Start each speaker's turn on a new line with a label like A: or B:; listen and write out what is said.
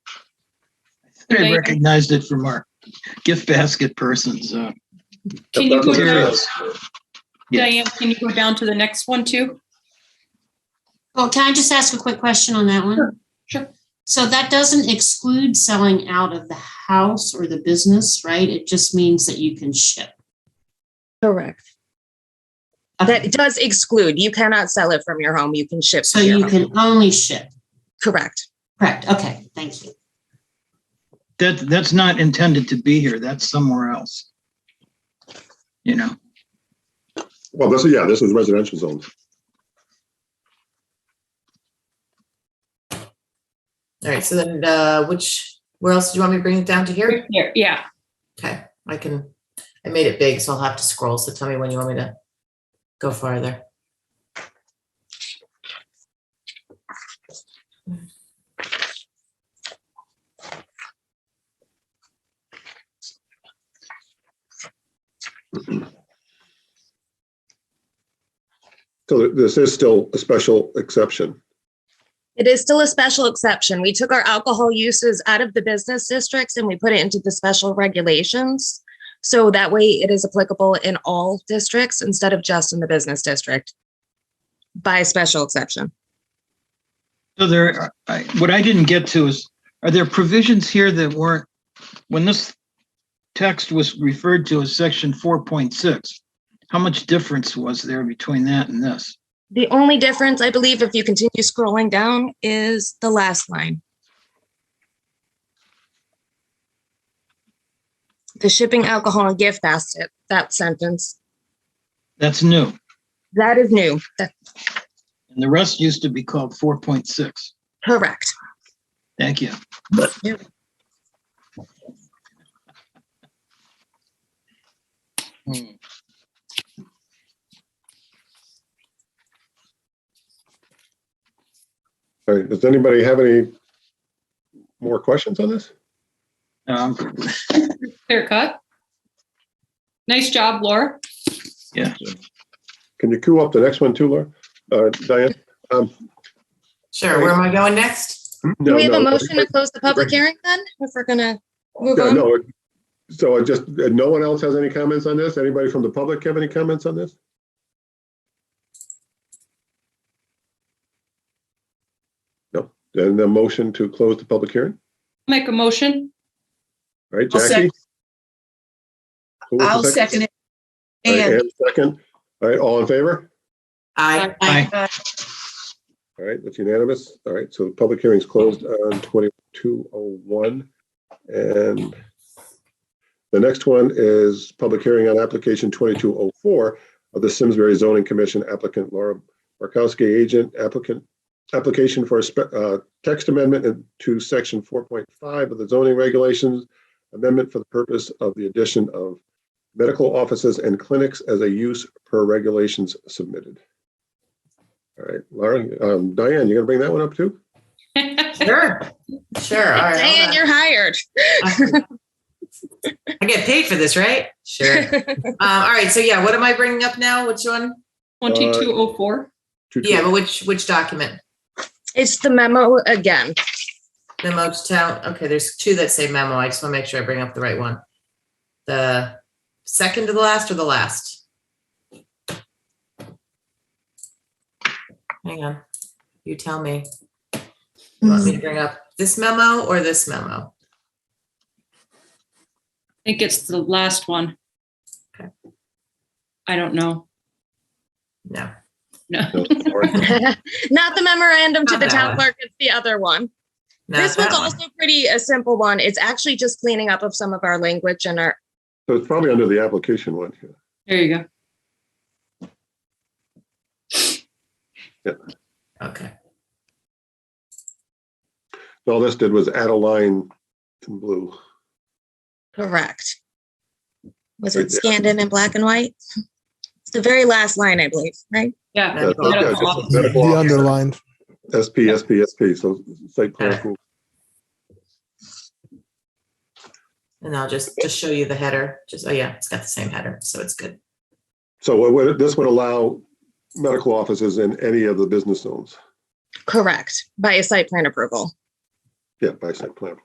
A: I
B: Dana?
A: recognized it from our gift basket person's. uh,
B: Can you go down,
A: Materials. Yeah.
B: Diane, can you go down to the next one too?
C: Well, Oh, can I just ask a quick question on that one?
B: Sure.
C: So that doesn't exclude selling out of the house or the business, right? It just means that you can ship.
D: Correct.
C: Okay.
D: That does exclude, you cannot sell it from your home, you can ship.
C: So
D: to your
C: you
D: home.
C: can only ship.
D: Correct.
C: Correct. Okay, thank you.
A: That, that's not intended to be here. That's somewhere else. You know,
E: Well, this is, yeah, this is residential zone.
F: All right, so then, uh, which, where else do you want me to bring it down to here?
B: Here, yeah.
F: Okay, I can, I made it big, so I'll have to scroll, so tell me when you want me to go farther.
E: So this is still a special exception.
D: It is still a special exception. We took our alcohol uses out of the business districts and we put it into the special regulations. So that way it is applicable in all districts instead of just in the business district by special exception.
A: so there, are- I, what I didn't get to is, are there provisions here that weren't, when this text was referred to as section 4.6, how much difference was there between that and this?
D: The only difference, I believe, if you continue scrolling down, is the last line. The shipping alcohol and gift basket, that sentence,
A: That's new.
D: that is new. That's
A: And the rest used to be called 4.6.
D: correct.
A: Thank you. Hmm.
E: All right, does anybody have any more questions on this?
A: Um,
B: Clear cut. Nice job, Laura.
E: Can you cue up the next one too, Laura? Uh, Diane?
F: Sure, where am I going next?
D: Do
E: No,
D: Hmm? we have a
E: no.
D: motion to close the public
E: Great.
D: hearing then, if we're gonna move
E: Yeah,
D: on?
E: no. it- So I just, uh, no one else has any comments on this? Anybody from the public have any comments on this? No, then the motion to close the public hearing,
B: Make a motion.
E: All right,
G: I'll
E: Jackie? Who was the
G: I'll second it.
E: All right,
G: And
E: Ann, second. All right, all in favor?
F: I, uh,
A: Aye.
E: All right, that's unanimous. All right, so the public hearing's closed on 2201. And the next one is public hearing on application 2204 of the Simsbury Zoning Commission applicant Laura Markowski, agent applicant, application for a spe- uh, text amendment to section 4.5 of the zoning regulations, amendment for the purpose of the addition of medical offices and clinics as a use per regulations submitted. All right, Laura, um, Diane, you gonna bring that one up too?
F: sure, sure, all right.
D: Dan,
F: hold on.
D: you're hired.
F: I get paid for this, right? Sure. Um, all right, so yeah, what am I bringing up now? Which one?
B: 2204.
E: Two-
F: Yeah, but which, which document?
D: It's the memo again.
F: Memo to town, okay, there's two that say memo, I just want to make sure I bring up the right one. The second to the last or the last? Hang on, you tell me. You Want me to bring up this memo or this memo?
B: I think it's the last one.
F: Okay.
B: I don't know.
F: No,
E: No, Laura.
D: Not the memorandum to
F: Not
D: the
F: that
D: town
F: one.
D: clerk, it's the other one.
F: no.
D: This
F: that
D: one's
F: one.
D: also pretty a simple one. It's actually just cleaning up of some of our language and our,
E: So it's probably under the application one. yeah.
B: There you go.
F: Okay,
E: All this did was add a line in blue.
D: correct. Was
E: Right
D: it
E: there.
D: scanned in in black and white? It's the very last line, I believe, right?
B: Yeah.
E: Yeah,
F: Medical
E: yeah,
B: office.
E: just
H: The
E: medical office.
H: underlined.
E: SP, SP, SP, so site plan. approval.
F: and I'll just, just show you the header, just, oh yeah, it's got the same header, so it's good.
E: So what would, this would allow medical offices in any of the business zones,
D: Correct, by a site plan approval.
E: yeah, by site plan.